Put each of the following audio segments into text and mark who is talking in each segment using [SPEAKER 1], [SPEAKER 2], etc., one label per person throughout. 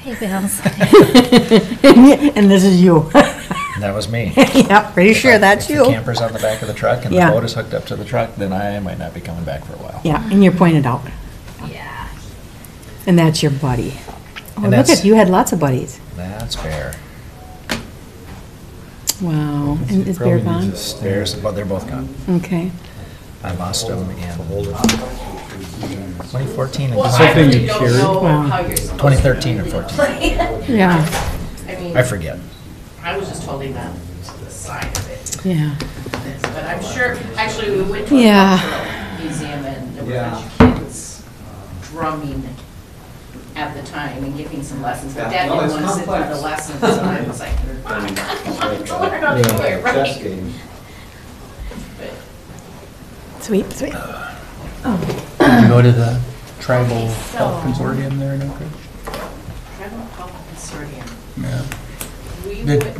[SPEAKER 1] Hey, Bill's.
[SPEAKER 2] And this is you.
[SPEAKER 3] That was me.
[SPEAKER 2] Yeah, pretty
[SPEAKER 3] If I-
[SPEAKER 2] sure that's
[SPEAKER 3] If the
[SPEAKER 2] you.
[SPEAKER 3] camper's on the back of the truck and the
[SPEAKER 2] Yeah.
[SPEAKER 3] boat is hooked up to the truck, then I might not be coming back for a while.
[SPEAKER 2] Yeah, and you're pointed out.
[SPEAKER 1] Yeah.
[SPEAKER 2] And that's your buddy. Oh,
[SPEAKER 3] And
[SPEAKER 2] look
[SPEAKER 3] that's-
[SPEAKER 2] at, you had lots of buddies.
[SPEAKER 3] That's fair.
[SPEAKER 2] Wow. And is Bear
[SPEAKER 4] Probably
[SPEAKER 2] gone?
[SPEAKER 4] needs a
[SPEAKER 3] Bears, but they're both gone.
[SPEAKER 2] Okay.
[SPEAKER 3] I lost them in
[SPEAKER 4] Well,
[SPEAKER 3] 2014 and
[SPEAKER 5] Well, I
[SPEAKER 4] something
[SPEAKER 5] really
[SPEAKER 4] you
[SPEAKER 5] don't
[SPEAKER 4] carry?
[SPEAKER 5] know
[SPEAKER 2] Wow.
[SPEAKER 5] how you're supposed to.
[SPEAKER 3] 2013 or 14.
[SPEAKER 5] play.
[SPEAKER 2] Yeah,
[SPEAKER 5] I mean,
[SPEAKER 3] I forget.
[SPEAKER 5] I was just holding on to the side of it,
[SPEAKER 2] yeah.
[SPEAKER 5] but I'm sure, actually, we went to a
[SPEAKER 2] Yeah.
[SPEAKER 5] cultural museum and there were a
[SPEAKER 4] Yeah.
[SPEAKER 5] bunch of kids um, drumming at the time and giving some lessons, but Dad
[SPEAKER 4] Yeah, no,
[SPEAKER 5] didn't
[SPEAKER 4] it's
[SPEAKER 5] want to sit through the
[SPEAKER 4] complex.
[SPEAKER 5] lessons, and I was like, "Mom, I want to learn how to do it
[SPEAKER 4] Chess
[SPEAKER 5] right.
[SPEAKER 4] games.
[SPEAKER 5] But
[SPEAKER 2] Sweet, sweet.
[SPEAKER 4] Did you go to the tribal
[SPEAKER 5] so-
[SPEAKER 4] health consortium there in Oak Ridge?
[SPEAKER 5] Trevor Powell Consortium,
[SPEAKER 4] Yeah.
[SPEAKER 5] we
[SPEAKER 4] Did-
[SPEAKER 5] went,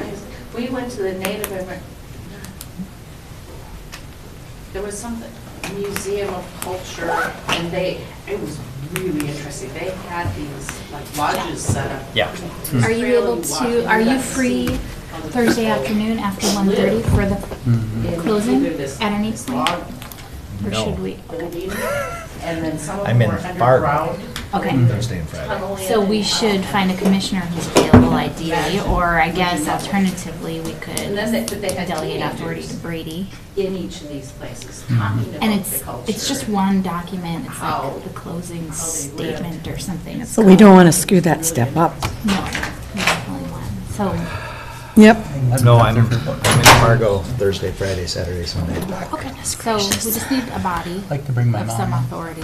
[SPEAKER 5] I- we went to the Native Amer, there was some museum of culture, and they, it was really interesting, they had these like lodges set up.
[SPEAKER 3] Yeah. Hmm.
[SPEAKER 1] Are you able to, are you free Thursday afternoon after 1:30 for the,
[SPEAKER 4] Mm-hmm.
[SPEAKER 1] closing at any point? or
[SPEAKER 3] No.
[SPEAKER 1] should we?
[SPEAKER 5] And then some of
[SPEAKER 3] I'm
[SPEAKER 5] them
[SPEAKER 3] in
[SPEAKER 5] were
[SPEAKER 3] Fargo.
[SPEAKER 5] underground.
[SPEAKER 1] Okay,
[SPEAKER 5] Mm-hmm.
[SPEAKER 3] Thursday and Friday.
[SPEAKER 5] tunneling.
[SPEAKER 1] so we should find a commissioner who's available ideally, or I guess alternatively, we could
[SPEAKER 5] And then they, but they had
[SPEAKER 1] delegate authority to
[SPEAKER 5] teenagers
[SPEAKER 1] Brady.
[SPEAKER 5] in each of these places
[SPEAKER 3] Hmm.
[SPEAKER 5] talking
[SPEAKER 1] And
[SPEAKER 5] about the
[SPEAKER 1] it's,
[SPEAKER 5] culture.
[SPEAKER 1] it's just one document, it's
[SPEAKER 5] How-
[SPEAKER 1] like the closing
[SPEAKER 5] how they live.
[SPEAKER 1] statement or something. It's
[SPEAKER 2] So we don't
[SPEAKER 1] called-
[SPEAKER 2] want to screw that step up.
[SPEAKER 1] No, we definitely want- so,
[SPEAKER 2] Yep.
[SPEAKER 3] No, I'm I'm in Fargo Thursday, Friday, Saturday, Sunday.
[SPEAKER 1] okay, so we just need a body
[SPEAKER 4] Like to bring my
[SPEAKER 1] of some
[SPEAKER 4] mom.
[SPEAKER 1] authority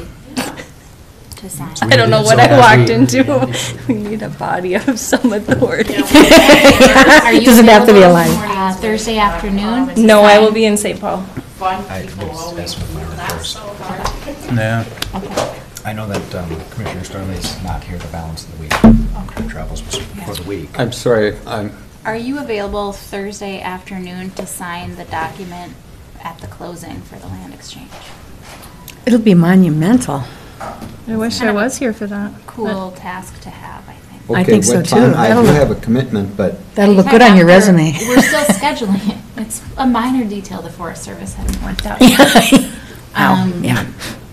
[SPEAKER 1] to sign.
[SPEAKER 6] I don't know
[SPEAKER 4] So
[SPEAKER 6] what
[SPEAKER 4] have
[SPEAKER 6] I walked
[SPEAKER 4] we.
[SPEAKER 6] into. We need a body of some authority.
[SPEAKER 1] Are you
[SPEAKER 2] Doesn't have to be a
[SPEAKER 1] available,
[SPEAKER 2] line.
[SPEAKER 1] uh, Thursday afternoon? to
[SPEAKER 6] No, I will
[SPEAKER 1] sign?
[SPEAKER 6] be in St. Paul.
[SPEAKER 5] Fun
[SPEAKER 3] I
[SPEAKER 5] people
[SPEAKER 3] just
[SPEAKER 5] always
[SPEAKER 3] asked with my
[SPEAKER 5] do that
[SPEAKER 3] reports.
[SPEAKER 5] so hard.
[SPEAKER 4] Yeah.
[SPEAKER 3] I know that um, Commissioner Starley's not here the balance of the week. Travels for the week.
[SPEAKER 7] I'm sorry, I'm,
[SPEAKER 1] Are you available Thursday afternoon to sign the document at the closing for the land exchange?
[SPEAKER 2] It'll be monumental.
[SPEAKER 6] I wish I was here for that.
[SPEAKER 1] Cool task to have, I think.
[SPEAKER 2] I
[SPEAKER 7] okay,
[SPEAKER 2] think so,
[SPEAKER 7] what
[SPEAKER 2] too.
[SPEAKER 7] time, I do
[SPEAKER 2] That'll-
[SPEAKER 7] have a commitment, but
[SPEAKER 2] That'll look good on your resume.
[SPEAKER 1] We're still scheduling it. It's a minor detail the Forest Service hasn't worked out.
[SPEAKER 2] Ow,
[SPEAKER 1] Um,
[SPEAKER 2] yeah.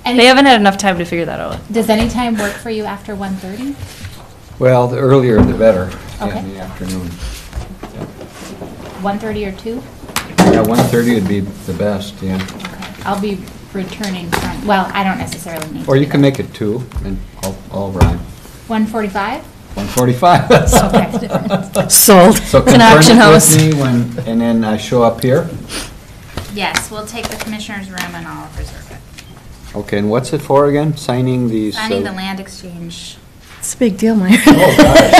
[SPEAKER 1] Any-
[SPEAKER 6] They haven't had enough time to figure that out.
[SPEAKER 1] Does any time work for you after 1:30?
[SPEAKER 7] Well, the earlier the better, yeah,
[SPEAKER 1] Okay.
[SPEAKER 7] in the afternoon.
[SPEAKER 1] 1:30 or 2?
[SPEAKER 7] Yeah, 1:30 would be the best, yeah.
[SPEAKER 1] I'll be returning from, well, I don't necessarily need to.
[SPEAKER 7] Or you
[SPEAKER 1] be
[SPEAKER 7] can
[SPEAKER 1] there.
[SPEAKER 7] make it 2, and I'll, I'll rhyme.
[SPEAKER 1] 1:45?
[SPEAKER 7] 1:45.
[SPEAKER 1] Okay.
[SPEAKER 2] Sold.
[SPEAKER 7] So
[SPEAKER 6] It's
[SPEAKER 7] confirm
[SPEAKER 6] an auction
[SPEAKER 7] it
[SPEAKER 6] house.
[SPEAKER 7] with me when, and then I show up here?
[SPEAKER 1] Yes, we'll take the commissioner's room and I'll reserve it.
[SPEAKER 7] Okay, and what's it for again? Signing these?
[SPEAKER 1] Signing
[SPEAKER 7] uh,
[SPEAKER 1] the land exchange.
[SPEAKER 2] It's a big deal, Myra.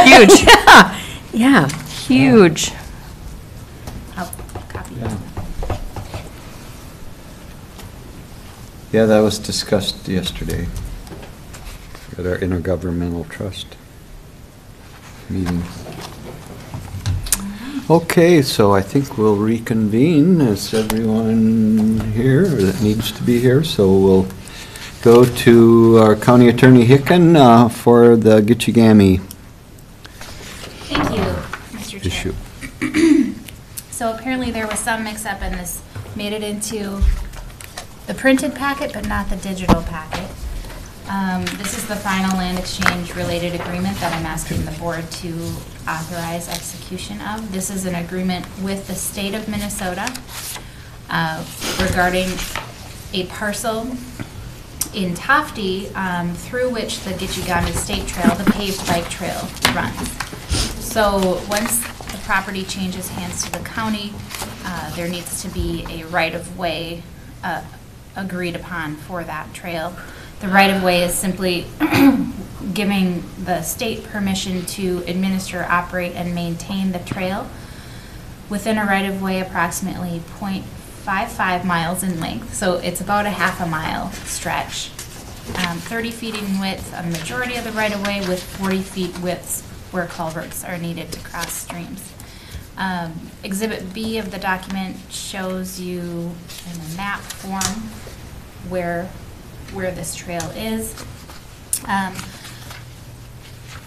[SPEAKER 6] Huge.
[SPEAKER 2] Yeah, yeah.
[SPEAKER 6] Huge.
[SPEAKER 1] I'll copy
[SPEAKER 7] Yeah.
[SPEAKER 1] it.
[SPEAKER 7] Yeah, that was discussed yesterday at our intergovernmental trust meeting. Okay, so I think we'll reconvene, as everyone here that needs to be here, so we'll go to our county attorney Hicken uh, for the Gitchigami
[SPEAKER 1] Thank you, Mr. Chair.
[SPEAKER 7] issue.
[SPEAKER 1] So apparently there was some mix-up and this made it into the printed packet, but not the digital packet. Um, This is the final land exchange-related agreement that I'm asking the board to authorize execution of. This is an agreement with the state of Minnesota uh, regarding a parcel in Tofty um, through which the Gitchigami State Trail, the paved bike trail, runs. So once the property changes hands to the county, uh, there needs to be a right-of-way uh, agreed upon for that trail. The right-of-way is simply giving the state permission to administer, operate, and maintain the trail within a right of way approximately 0.55 miles in length, so it's about a half a mile stretch. Um, thirty feet in width, a majority of the right of way with forty feet widths where culverts are needed to cross streams. Um, exhibit B of the document shows you in a map form where, where this trail is. Um,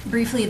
[SPEAKER 1] briefly,